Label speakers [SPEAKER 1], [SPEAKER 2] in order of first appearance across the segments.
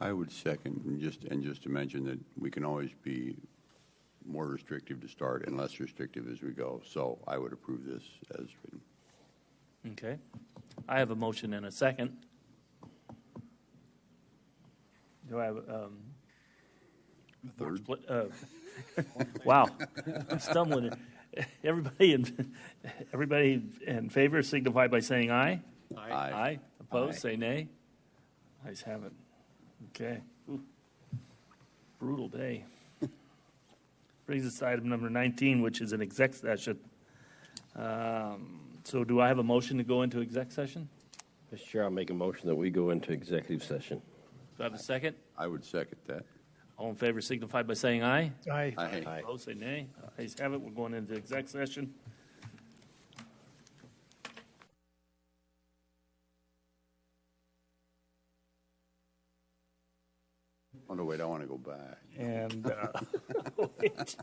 [SPEAKER 1] I would second, and just, and just to mention that we can always be more restrictive to start and less restrictive as we go. So I would approve this as written.
[SPEAKER 2] Okay. I have a motion and a second. Do I have, um,
[SPEAKER 1] Third?
[SPEAKER 2] split, uh, wow, I'm stumbling. Everybody in, everybody in favor signify by saying aye.
[SPEAKER 1] Aye.
[SPEAKER 2] Aye. Opposed, say nay. Ayes have it. Okay. Ooh. Brutal day. Brings us to item number 19, which is an exec session. Um, So do I have a motion to go into exec session?
[SPEAKER 3] Mr. Chair, I'll make a motion that we go into executive session.
[SPEAKER 2] Do I have a second?
[SPEAKER 1] I would second that.
[SPEAKER 2] All in favor signify by saying aye.
[SPEAKER 4] Aye.
[SPEAKER 1] Aye.
[SPEAKER 3] Aye.
[SPEAKER 2] Opposed, say nay. Ayes have it. We're going into exec session.
[SPEAKER 1] Oh, no, wait, I want to go back.
[SPEAKER 2] And uh, wait.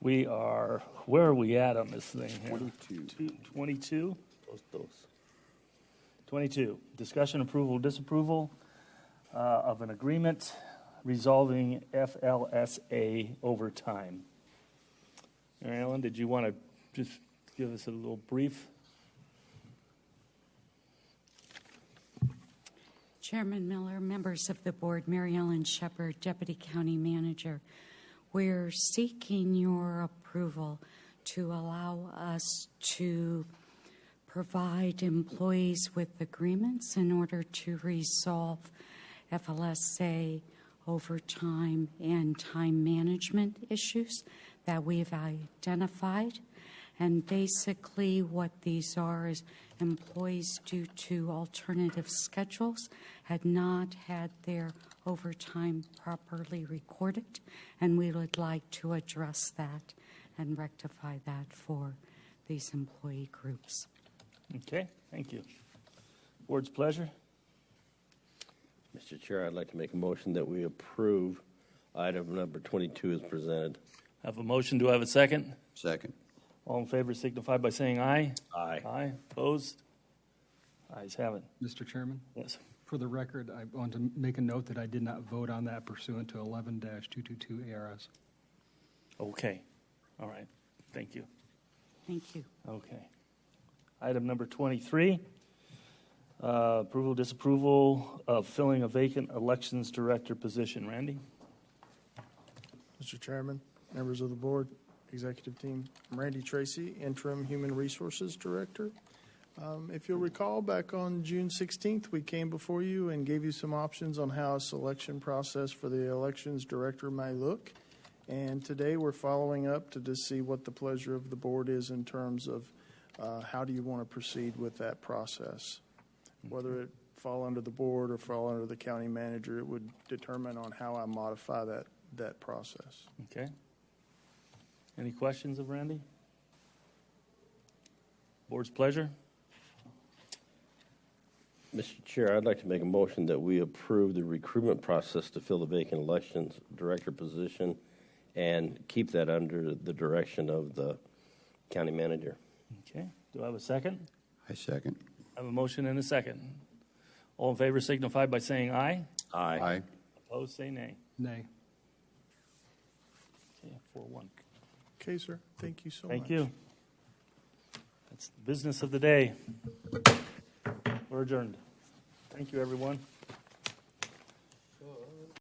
[SPEAKER 2] we are, where are we at on this thing here? 22. 22? 22, discussion approval, disapproval uh, of an agreement resolving FLSA overtime. Mary Ellen, did you want to just give us a little brief?
[SPEAKER 5] Chairman Miller, members of the board, Mary Ellen Shepherd, Deputy County Manager. We're seeking your approval to allow us to provide employees with agreements in order to resolve FLSA overtime and time management issues that we've identified. And basically, what these are is employees, due to alternative schedules, had not had their overtime properly recorded, and we would like to address that and rectify that for these employee groups.
[SPEAKER 2] Okay, thank you. Board's pleasure.
[SPEAKER 3] Mr. Chair, I'd like to make a motion that we approve item number 22 as presented.
[SPEAKER 2] Have a motion, do I have a second?
[SPEAKER 1] Second.
[SPEAKER 2] All in favor signify by saying aye.
[SPEAKER 3] Aye.
[SPEAKER 2] Aye, opposed? Ayes have it.
[SPEAKER 6] Mr. Chairman,
[SPEAKER 2] Yes.
[SPEAKER 6] for the record, I want to make a note that I did not vote on that pursuant to 11-222 ARS.
[SPEAKER 2] Okay, all right, thank you.
[SPEAKER 5] Thank you.
[SPEAKER 2] Okay. Item number 23, uh, approval, disapproval of filling a vacant elections director position. Randy?
[SPEAKER 7] Mr. Chairman, members of the board, executive team, I'm Randy Tracy, interim Human Resources Director. Um, If you'll recall, back on June 16th, we came before you and gave you some options on how a selection process for the elections director may look. And today, we're following up to just see what the pleasure of the board is in terms of uh, how do you want to proceed with that process? Whether it fall under the board or fall under the county manager, it would determine on how I modify that, that process.
[SPEAKER 2] Okay. Any questions of Randy? Board's pleasure?
[SPEAKER 3] Mr. Chair, I'd like to make a motion that we approve the recruitment process to fill the vacant elections director position and keep that under the direction of the county manager.
[SPEAKER 2] Okay, do I have a second?
[SPEAKER 1] I second.
[SPEAKER 2] I have a motion and a second. All in favor signify by saying aye.
[SPEAKER 3] Aye.
[SPEAKER 1] Aye.
[SPEAKER 2] Opposed, say nay.
[SPEAKER 6] Nay.
[SPEAKER 2] Okay, four one.
[SPEAKER 7] Okay, sir. Thank you so much.
[SPEAKER 2] Thank you. That's the business of the day. We're adjourned. Thank you, everyone.